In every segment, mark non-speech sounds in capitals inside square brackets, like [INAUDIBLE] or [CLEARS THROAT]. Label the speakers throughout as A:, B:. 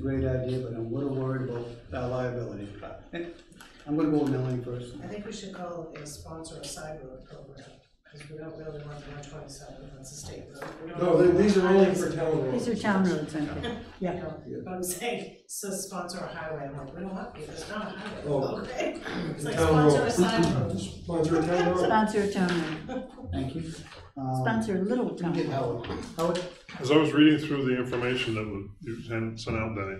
A: great idea, but I'm a little worried about our liability. [LAUGHS] I'm gonna go with Melanie first.
B: I think we should call it a sponsor a side road program, because we don't really want one twenty-seven, that's a state road. We don't-
C: No, th- these are only for town roads.
D: These are town roads, I think.
B: You know, but I'm saying, so sponsor a highway, I'm like, we don't want people, it's not a
C: Oh.
B: highway, okay? It's like
C: Town
B: sponsor a
C: roads.
B: side road.
C: Sponsor a town road.
D: Sponsor a town road,
A: Thank you. Um,
D: sponsor a little
A: we can
D: town
A: Get
D: road.
A: Howard. Howard,
E: As I was reading through the information that was, you sent sent out, Denny,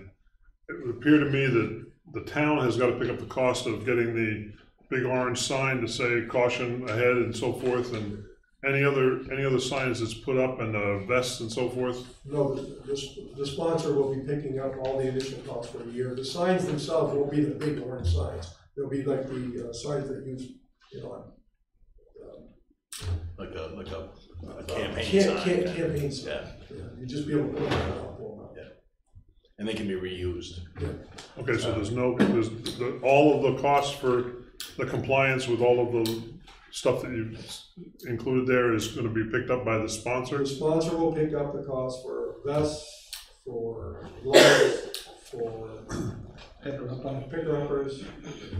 E: it would appear to me that the town has got to pick up the cost of getting the big orange sign to say caution ahead and so forth, and any other, any other signs that's put up and uh, vests and so forth.
C: No, the, the sponsor will be picking up all the initial costs for a year. The signs themselves won't be the big orange signs. They'll be like the uh, signs that use, you know,
F: Like a, like a- a
C: uh,
F: campaign
C: camp-
F: sign.
C: camp-
F: yeah.
C: Campaign sign.
F: Yeah,
C: Yeah, You'd just be able to pull that out, pull them out.
F: and they can be reused.
E: Okay, so there's no, there's, the- all of the costs for the compliance with all of the stuff that you've included there is going to be picked up by the
C: The
E: sponsors?
C: sponsor will pick up the cost for vests, for gloves, for
A: Pepper, up on.
C: pickers,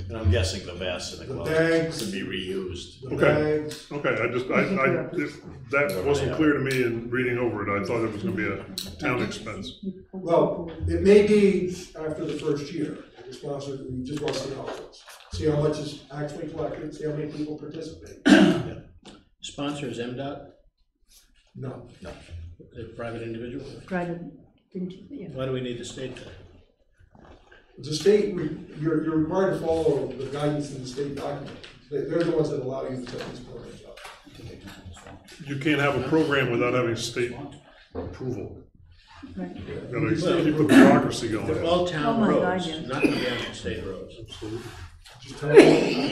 F: And I'm guessing the vests and the
C: The
F: gloves
C: bags.
F: can be reused.
C: the
E: Okay.
C: bags.
E: Okay, I just, I, I, if- that wasn't clear to me in reading over it, I thought it was gonna be a town expense.
C: Well, it may be after the first year, the sponsor, we just want to see how it goes. See how much is actually collected, see how many people participate.
G: Sponsor is MDOT,
C: No,
G: a private individual.
D: Private, didn't you, yeah.
G: Why do we need the state then?
C: the state, we- you're, you're required to follow the guidance in the state document. They- They're the ones that allow you to set these programs up.
E: You can't have a program without having state approval.
D: Right.
E: Gotta keep the bureaucracy
G: They're
E: going.
G: all town
D: Oh my God,
G: roads,
D: yes.
G: not gonna be on state roads.
C: Just tell them, I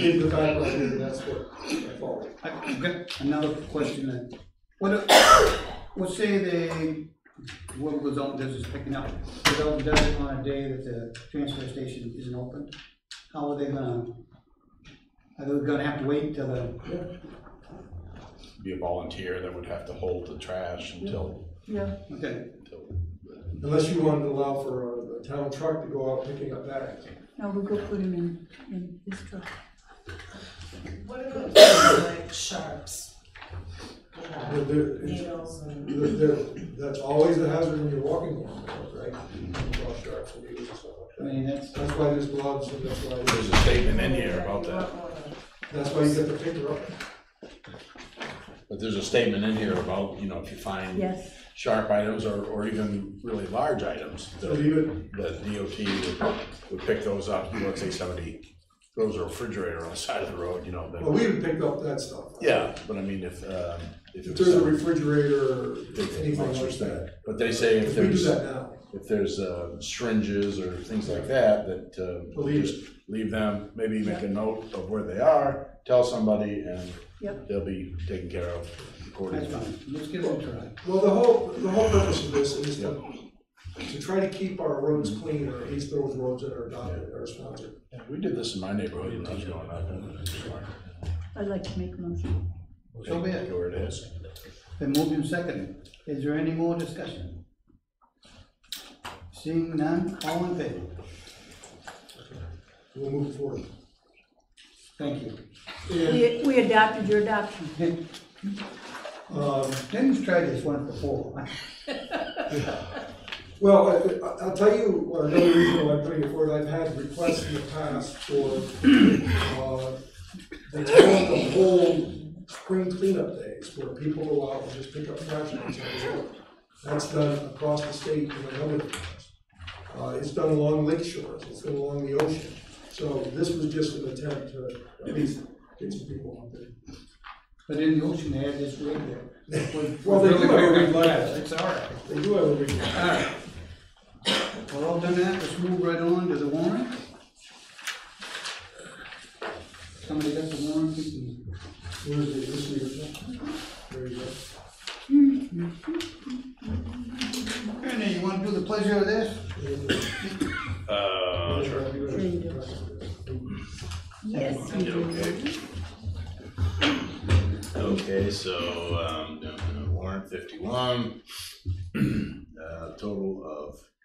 C: did the background, and that's what I follow.
A: I've got another question then. What, if- let's say they, what goes on, this is picking up, they don't, does it on a day that the transfer station isn't open? How are they gonna, are they gonna have to wait till the,
F: Be a volunteer that would have to hold the trash until,
D: Yeah,
A: okay,
F: until
C: Unless you wanted to allow for a- a town truck to go out picking up bags.
D: no, we'll go put him in, in this truck.
B: What about things like sharps? You know,
C: They're- they're-
B: Needles and,
C: they're- they're- that's always a hazard when you're walking along the road, right? Draw sharps and needles and stuff like
A: I
C: that.
A: mean, that's,
C: That's why there's gloves and that's why,
F: there's a statement in here about that.
C: that's why you get the finger up.
F: But there's a statement in here about, you know, if you find
D: Yes,
F: sharp items or, or even really large items,
C: So
F: that
C: even,
F: that DOT would, would pick those up. You know, let's say somebody throws a refrigerator on the side of the road, you know,
C: well,
F: then,
C: we even picked up that stuff.
F: yeah, but I mean, if, um, if
C: If
F: it
C: there's a
F: was.
C: refrigerator, anything like that.
F: But they say if
C: If we do
F: there's.
C: that now,
F: if there's uh, syringes or things like that, that uh,
C: Leave it.
F: just leave them, maybe make a note of where they are, tell somebody, and
D: Yep.
F: they'll be taken care of accordingly.
A: that's fine, let's give it a try.
C: well, the whole, the whole purpose of this is to, to try to keep our roads clean, or at least those roads that are adopted, are sponsored.
F: Yeah, We did this in my neighborhood when I was growing up. and it's fine.
D: I'd like to make a motion.
A: So be it.
F: Go Where it is.
A: Been moved and seconded. Is there any more discussion? Seeing none, all in favor?
C: We'll move forward.
A: Thank you.
C: And,
D: We, we adopted your adoption.
C: um,
A: Dennis tried this one before.
C: Well, I- I- I'll tell you another reason why I'm putting it forward. I've had requests in the past for uh, the town to hold spring cleanup days where people go out and just pick up trash on the road. That's done across the state in a number of towns. Uh, It's done along lake shores, it's done along the ocean. So this was just an attempt to at least get some people out there.
A: But in the ocean, they had this rig that was.
C: Well, they do have a rig like
A: Yeah,
C: that.
A: It's all right.
C: They do have a request.
A: All right. Well, all done that, let's move right on to the warrant. Somebody got the warrant? We can-
C: Where's the, this year's? There you go.
A: Ernie, you want to do the pleasure of this?
F: Uh, sure.
D: Sure you do. Yes, you do.
F: Okay, so, [CLEARS THROAT] um, uh, warrant fifty-one, uh, total of